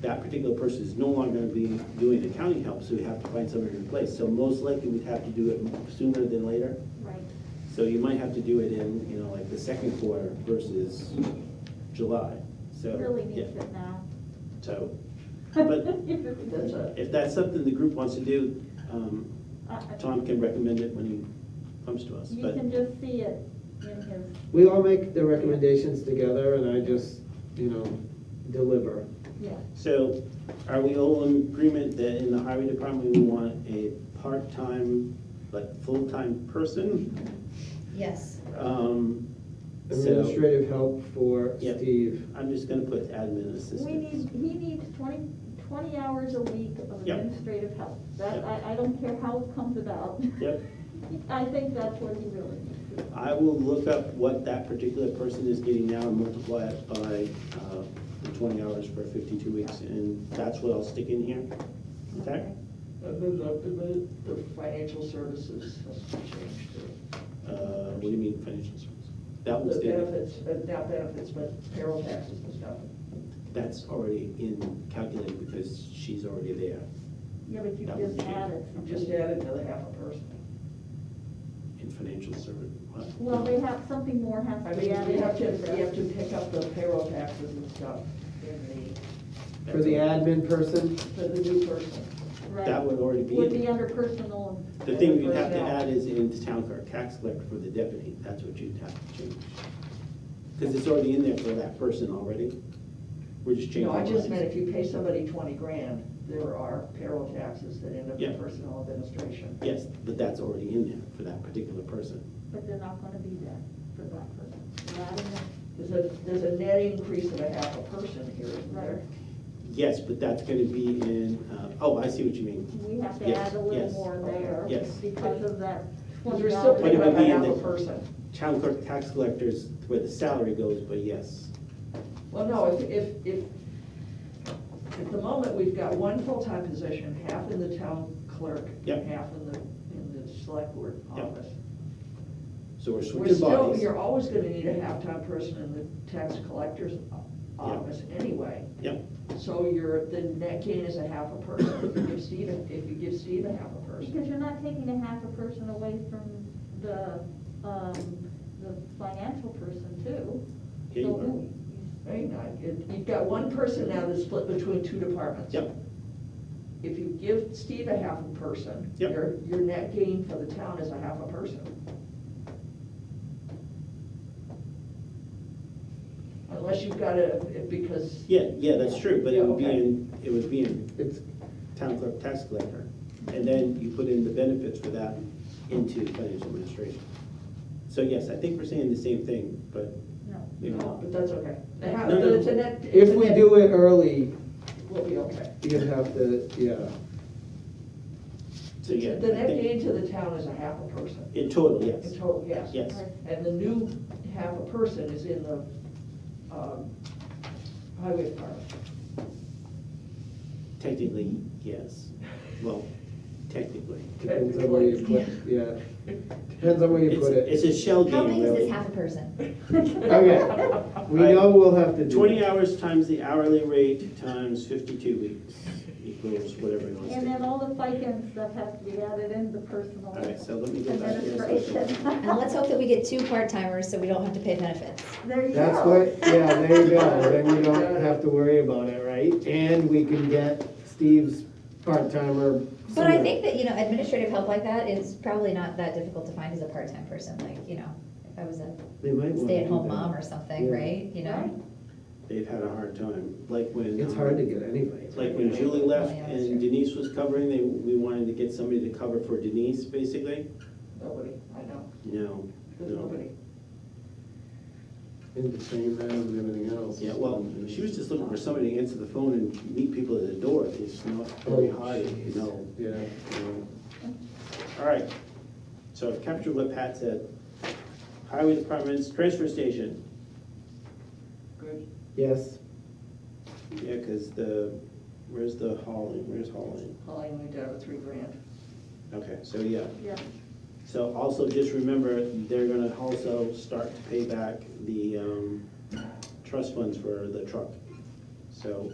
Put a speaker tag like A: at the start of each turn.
A: that particular person is no longer gonna be doing accounting help, so we have to find somebody to replace. So most likely, we'd have to do it sooner than later.
B: Right.
A: So you might have to do it in, you know, like the second quarter versus July, so.
B: Really
A: yeah,
B: needs it now.
A: So, but
B: It really does.
A: if that's something the group wants to do, um,
B: I- I-
A: Tom can recommend it when he comes to us,
B: You
A: but.
B: can just see it in his,
C: We all make the recommendations together and I just, you know, deliver.
B: yeah.
A: So are we all in agreement that in the highway department, we want a part-time, like, full-time person?
D: Yes.
A: Um, So
C: Administrative help for
A: Yep.
C: Steve.
A: I'm just gonna put admin
B: We need,
A: assistant.
B: he needs twenty, twenty hours a week of
A: Yep.
B: administrative help. That,
A: Yep.
B: I, I don't care how it comes about.
A: Yep,
B: I think that's what he really needs.
A: I will look up what that particular person is getting now and multiply it by, uh, the twenty hours for fifty-two weeks, and that's what I'll stick in here, okay?
E: That moves up to Uh, the, the financial services, that's what changed to.
A: Uh, what do you mean financial services? That was
E: The
A: the,
E: benefits, but not benefits, but payroll taxes and stuff.
A: that's already in calculated because she's already there.
B: Yeah, but you
A: That
B: just
A: would change.
B: added
E: You
B: something.
E: just added another half a person.
A: In financial service. what?
B: Well, they have, something more has
E: I
B: to
E: mean,
B: be added.
E: you have to, you have to pick up the payroll taxes and stuff in
C: For the admin person,
E: the, for the new person.
B: Right.
A: That would already be,
B: Would be
A: in.
B: under personal,
A: the thing you'd have to
E: Personnel.
A: add is in the town clerk, tax collector for the deputy, that's what you'd have to change. Because it's already in there for that person already. We're just changing.
E: No, I just
A: lines.
E: meant if you pay somebody twenty grand, there are payroll taxes that end up
A: Yeah.
E: in personnel administration.
A: Yes, but that's already in there for that particular person.
B: but they're not gonna be there for that person. We're adding them.
E: There's a, there's a net increase of a half a person here, isn't there?
B: Right.
A: Yes, but that's gonna be in, uh, oh, I see what you mean.
B: We have to
A: Yes,
B: add a little
A: yes,
B: more there.
A: yes.
B: Because of that
E: Because
B: twenty
E: we're still
B: dollars.
A: But it
E: picking
A: would
E: up a
A: be in
E: half a
A: the-
E: person.
A: Town clerk, tax collectors, where the salary goes, but yes.
E: Well, no, if, if, if, at the moment, we've got one full-time position, half in the town clerk,
A: Yep.
E: and half in the, in the select board
A: Yep.
E: office.
A: So we're
E: We're
A: switching
E: still,
A: bodies.
E: you're always gonna need a half-time person in the tax collector's o- office anyway.
A: Yep,
E: So you're, the net gain is a half a person, if you give Steve, a- if you give Steve a half a person.
B: Because you're not taking a half a person away from the, um, the financial person too.
A: here
B: So
A: you
E: Right, now, you- you've got one person now that's split between two departments.
A: Yep.
E: If you give Steve a half a person,
A: Yep.
E: your, your net gain for the town is a half a person. Unless you've got a, because,
A: are. Yeah, yeah, that's true, but
E: Yeah,
A: it would be
E: okay.
A: in, it would be in
C: it's,
A: town clerk tax collector, and then you put in the benefits for that into financial administration. So yes, I think we're saying the same thing, but
B: No.
A: maybe
E: no,
A: not.
E: but that's okay. The half-
A: No, no.
E: but it's a net. it's
C: if
E: a
C: we
E: net-
C: do it early,
E: We'll be okay.
C: you have to, yeah.
A: So yeah,
E: The
A: I
E: net
A: think-
E: gain to the town is a half a person,
A: In total,
E: in
A: yes,
E: total, yes.
A: yes,
E: And the new half a person is in the um, highway department.
A: technically, yes, well, technically.
C: Depends on where you put, yeah. Depends on where you
A: It's-
C: put it.
A: It's a shell game.
D: How big is this
A: really.
D: half a person?
C: Okay. We know we'll have to do.
A: Twenty hours times the hourly rate times fifty-two weeks equals whatever it wants to
B: And
A: be.
B: then all the FICA and stuff has to be added in the personal.
A: All right, so let me go back here.
B: Administration.
D: And let's hope that we get two part-timers so we don't have to pay benefits.
B: There you go.
C: That's what, yeah, there you go, then you don't have to worry about it, right? And we can get Steve's part-timer.
D: But I
C: somewhere.
D: think that, you know, administrative help like that is probably not that difficult to find as a part-time person, like, you know, if I was a
C: They might wanna do
D: stay-at-home
C: that.
D: mom or something,
C: Yeah.
D: right, you
B: Right.
D: know?
A: They've had a hard time, like when.
C: It's
A: um,
C: hard to get anybody.
A: Like when Julie left
D: Yeah, that's
A: and
D: true.
A: Denise was covering, they, we wanted to get somebody to cover for Denise, basically.
E: Nobody, I know,
A: No,
E: there's nobody.
C: In between that and everything else.
A: yeah, well, she was just looking for somebody to answer the phone and meet people at the door, it's not very
C: Oh,
A: hard, you know.
C: Yeah,
A: you know. All right, so I've captured what Pat said. Highway departments, transfer station,
E: Good.
C: yes,
A: yeah, because the, where's the hauling, where's hauling?
E: Holly only down to three grand.
A: Okay, so yeah,
B: Yeah.
A: so also just remember, they're gonna also start to pay back the, um, trust funds for the truck. So